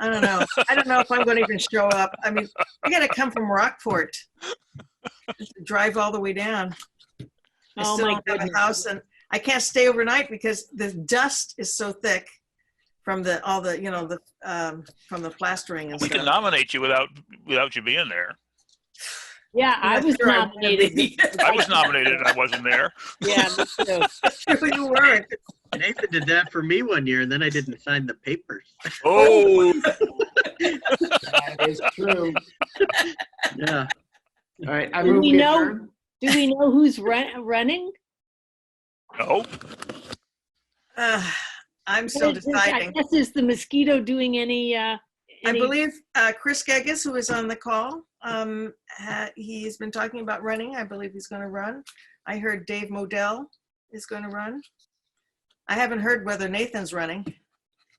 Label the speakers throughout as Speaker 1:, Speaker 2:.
Speaker 1: I don't know. I don't know if I'm going to even show up. I mean, I got to come from Rockport, Just drive all the way down. I
Speaker 2: Oh,
Speaker 1: still
Speaker 2: my
Speaker 1: don't have
Speaker 2: goodness.
Speaker 1: a house, and I can't stay overnight because the dust is so thick from the all the you know the um, from the plastering and
Speaker 3: We
Speaker 1: stuff.
Speaker 3: can nominate you without without you being there.
Speaker 2: Yeah,
Speaker 1: I'm
Speaker 2: I
Speaker 1: not
Speaker 2: was
Speaker 1: sure I wanna
Speaker 2: nominated.
Speaker 1: be.
Speaker 3: I was nominated and I wasn't there.
Speaker 2: Yeah, me too.
Speaker 1: you were.
Speaker 4: Nathan did that for me one year, and then I didn't sign the papers.
Speaker 3: Oh,
Speaker 5: That is true.
Speaker 4: Yeah.
Speaker 5: All right, I
Speaker 2: Do
Speaker 5: move
Speaker 2: we
Speaker 5: we
Speaker 2: know-
Speaker 5: adjourn.
Speaker 2: Do we know who's run- running?
Speaker 3: no.
Speaker 1: Uh, I'm still
Speaker 2: Is- is- I
Speaker 1: deciding.
Speaker 2: guess is the mosquito doing any, uh,
Speaker 1: I
Speaker 2: any-
Speaker 1: believe uh, Chris Geggis, who is on the call, um, ha- he's been talking about running. I believe he's going to run. I heard Dave Modell is going to run. I haven't heard whether Nathan's running.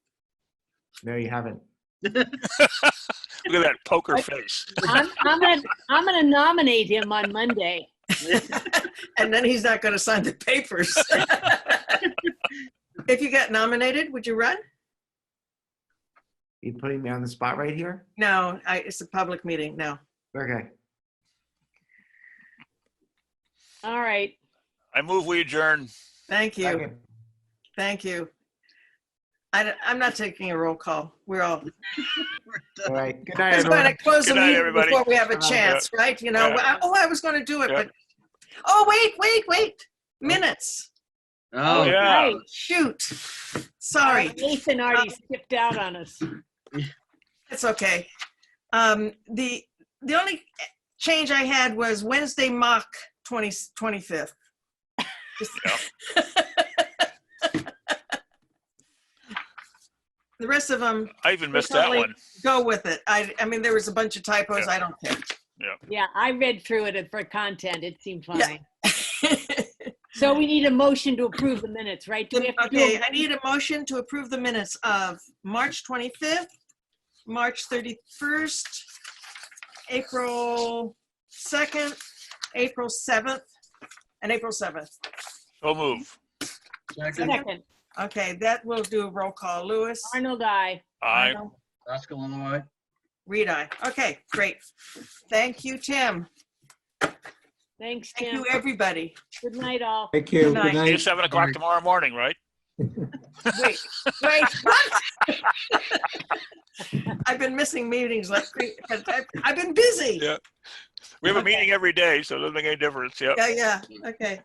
Speaker 5: No, you haven't.
Speaker 3: Look at that poker face.
Speaker 2: I'm, I'm gonna, I'm gonna nominate him on Monday.
Speaker 1: And then he's not going to sign the papers. if you got nominated, would you run?
Speaker 5: You putting me on the spot right here?
Speaker 1: No, I, it's a public meeting. No.
Speaker 5: Okay.
Speaker 2: All right.
Speaker 3: I move we adjourn.
Speaker 1: Thank you.
Speaker 5: Second.
Speaker 1: Thank you. I, don't- I'm not taking a roll call. We're all
Speaker 5: All right. Good night,
Speaker 1: just going to
Speaker 5: everyone.
Speaker 1: close the
Speaker 3: Good night,
Speaker 1: meeting
Speaker 3: everybody.
Speaker 1: before we have a
Speaker 5: Uh,
Speaker 1: chance, right? You know,
Speaker 3: yeah.
Speaker 1: I- oh, I was going to do it,
Speaker 3: Yeah.
Speaker 1: but, oh, wait, wait, wait, minutes.
Speaker 4: Oh,
Speaker 3: Yeah.
Speaker 2: Right.
Speaker 1: Shoot. Sorry,
Speaker 2: Nathan
Speaker 1: Um,
Speaker 2: already skipped out on us.
Speaker 1: it's okay. Um, the, the only change I had was Wednesday mock 20, 25th. The rest of them,
Speaker 3: I even missed that one.
Speaker 1: go with it. I, I mean, there was a bunch of typos.
Speaker 3: Yeah.
Speaker 1: I don't care.
Speaker 2: Yeah, I read through it for content. It seemed
Speaker 1: Yeah.
Speaker 2: fine. So we need a motion to approve the minutes, right? Do we have to do
Speaker 1: Okay,
Speaker 2: a-
Speaker 1: I need a motion to approve the minutes of March 25th, March 31st, April 2nd, April 7th, and April 7th.
Speaker 3: So move.
Speaker 4: Second,
Speaker 2: Second,
Speaker 1: Okay, that will do a roll call. Lewis?
Speaker 2: Arnold, I.
Speaker 3: I
Speaker 4: Oscar Lilloye.
Speaker 1: Reed, aye. Okay, great. Thank you, Tim.
Speaker 2: Thanks,
Speaker 1: Thank
Speaker 2: Tim.
Speaker 1: you, everybody.
Speaker 2: Good night, all.
Speaker 6: Thank you.
Speaker 1: Good night.
Speaker 6: Good
Speaker 3: see you
Speaker 6: night.
Speaker 3: seven o'clock tomorrow morning, right?
Speaker 1: Wait, wait, what? I've been missing meetings like, cra- but I've- I've been busy.
Speaker 3: Yeah. We have a meeting every day, so it doesn't make any difference. Yep.
Speaker 1: Yeah, yeah, okay.